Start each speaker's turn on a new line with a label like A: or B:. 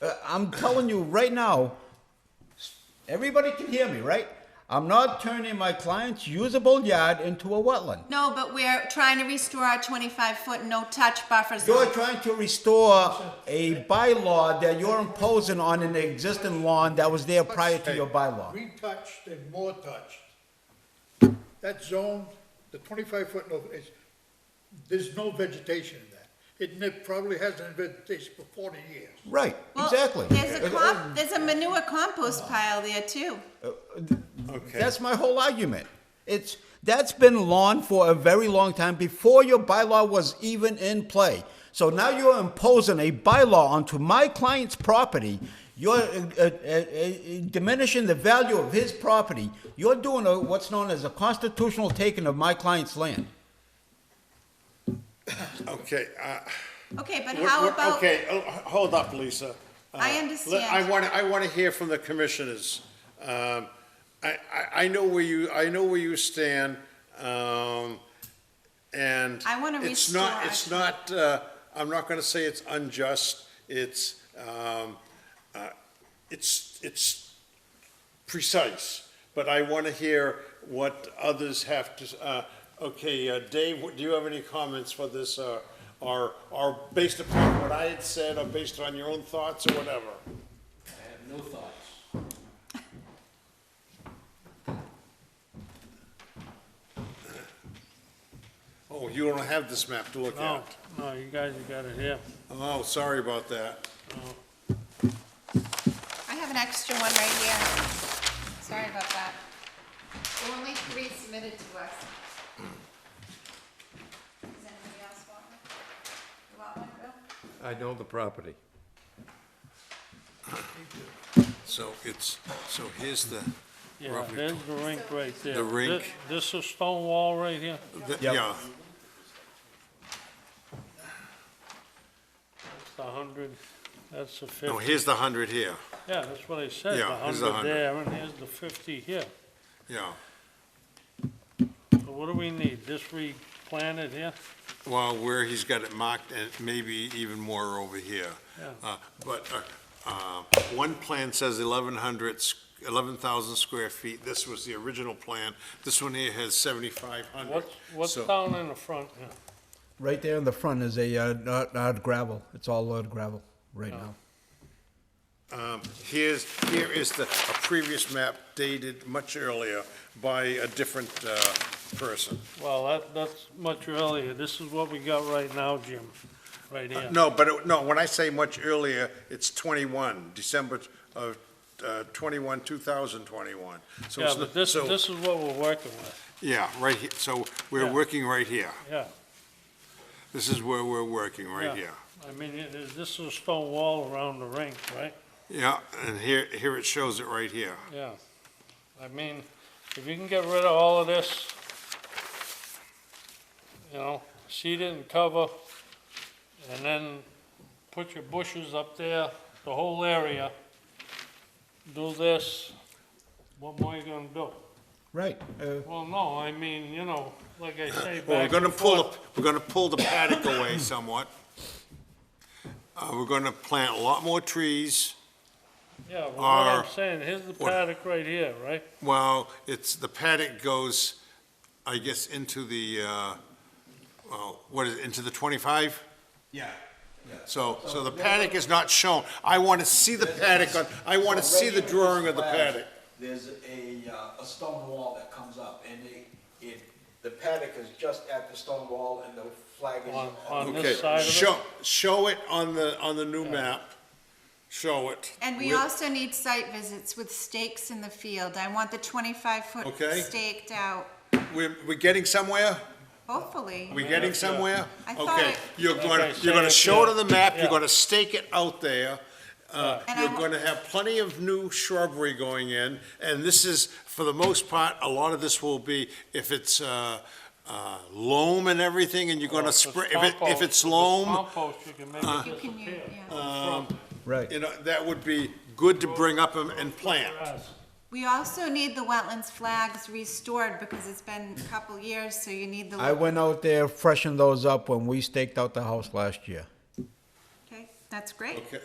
A: Uh, I'm telling you right now, everybody can hear me, right? I'm not turning my client's usable yard into a wetland.
B: No, but we're trying to restore our twenty-five foot no-touch buffer
A: You're
B: zone.
A: trying to restore a bylaw that you're imposing on an existing lawn that was there prior to your bylaw.
C: Retouched and more touched. That zone, the twenty-five foot, no, it's, there's no vegetation in that. It ne- probably hasn't been vegetation for forty years.
A: Right,
B: Well,
A: exactly.
B: There's a
A: Uh,
B: comp, there's a manure compost pile there too.
D: Okay,
A: That's my whole argument. It's, that's been lawn for a very long time, before your bylaw was even in play. So now you're imposing a bylaw onto my client's property. You're uh, uh, uh, diminishing the value of his property. You're doing a, what's known as a constitutional taking of my client's land.
D: okay, uh,
B: Okay, but
D: we're-
B: how
D: we're-
B: about,
D: Okay, oh, h- hold up, Lisa. Uh,
B: I
D: let-
B: understand.
D: I want, to. I want to hear from the commissioners. Um, I, I, I know where you, I know where you stand, um, and.
B: I wanna
D: It's not,
B: restore-
D: it's not, uh, I'm not going to say it's unjust, it's, um, uh, it's, it's precise, but I want to hear what others have to, uh, okay, uh, Dave, what- do you have any comments for this, uh, or, or based upon what I had said, or based on your own thoughts, or whatever?
E: No thoughts.
D: Oh, you don't have this map to look
F: No,
D: at.
F: Oh, no, you guys have got it here.
D: Oh, sorry about that.
B: I have an extra one right here. Sorry about that. Only three submitted to us. Does anybody else want one? You want one, Bill?
G: I know the property.
D: So it's, so here's the,
F: Yeah,
D: Roughly
F: there's the rink right there.
D: The
F: Thi-
D: rink.
F: This is stone wall right here.
D: the- yeah,
F: It's the hundred, that's the
D: no,
F: fifty.
D: here's the hundred here,
F: Yeah, that's what I said, the
D: Yeah, here's the 100.
F: hundred there, and here's the fifty here.
D: yeah.
F: So what do we need? This replanted here?
D: Well, where he's got it marked, and maybe even more over here.
F: Yeah.
D: Uh, But uh, uh, one plan says 1,100, s- 11,000 square feet. This was the original plan. This one here has 7,500.
F: What's, what's
D: So-
F: down in the front here?
A: Right there in the front is a, uh, not, not gravel. It's all uh, gravel right now.
D: Um, Here's, here is the, a previous map dated much earlier by a different uh, person.
F: Well, that, that's much earlier. This is what we got right now, Jim, right here.
D: No, but, it- no, when I say much earlier, it's 21, December of uh, 21, 2021. So
F: Yeah,
D: it's
F: but
D: not-
F: this,
D: so-
F: this is what we're working with,
D: Yeah, right here, so we're
F: Yeah.
D: working right here.
F: yeah.
D: This is where we're working,
F: Yeah.
D: right here.
F: I mean, it is, this is a stone wall around the rink, right?
D: Yeah, and here, here it shows it right here.
F: Yeah, I mean, if you can get rid of all of this, you know, seed it and cover, and then put your bushes up there, the whole area, do this, what more you gonna do?
A: Right. Uh,
F: Well, no, I mean, you know, like I say,
D: Well, we're
F: back
D: gonna
F: and
D: pull,
F: forth.
D: the- we're gonna pull the paddock away somewhat. Uh, we're gonna plant a lot more trees.
F: Yeah, well, what I'm
D: are-
F: saying, here's the
D: what-
F: paddock right here, right?
D: Well, it's, the paddock goes, I guess, into the, uh, well, what is it, into the twenty-five?
A: Yeah.
D: So, so the paddock is not shown. I wanna see the paddock on, I wanna see the drawing of the paddock.
A: There's a, uh, a stone wall that comes up, and it, it, the paddock is just at the stone wall, and the flag is.
F: On- on
D: Okay,
F: this side of it?
D: show, show it on the, on the new map. Show it.
B: And we
D: With-
B: also need site visits with stakes in the field. I want the twenty-five foot
D: Okay.
B: staked out,
D: We're, we're getting somewhere?
B: hopefully.
D: We're getting somewhere?
B: I thought
D: Okay,
B: it-
D: you're
F: Like I
D: gonna,
F: said,
D: you're gonna
F: if
D: show it
F: you-
D: on the map, you're
F: yeah.
D: gonna stake it out there. Uh,
B: And I
D: You're
B: wa-
D: gonna have plenty of new shrubbery going in, and this is, for the most part, a lot of this will be, if it's, uh, uh, loam and everything, and you're
F: Well,
D: gonna
F: if it's
D: spray, if it, if
F: compost-
D: it's loam, um,
F: Compost, you can make it
B: You can, u-
F: disappear.
B: yeah.
A: Right.
D: you know, that would be good to bring up and- and plant.
F: Grass.
B: We also need the wetlands flags restored because it's been a couple years, so you need the.
A: I went out there, freshened those up when we staked out the house last year.
B: Okay, that's great.
D: Okay,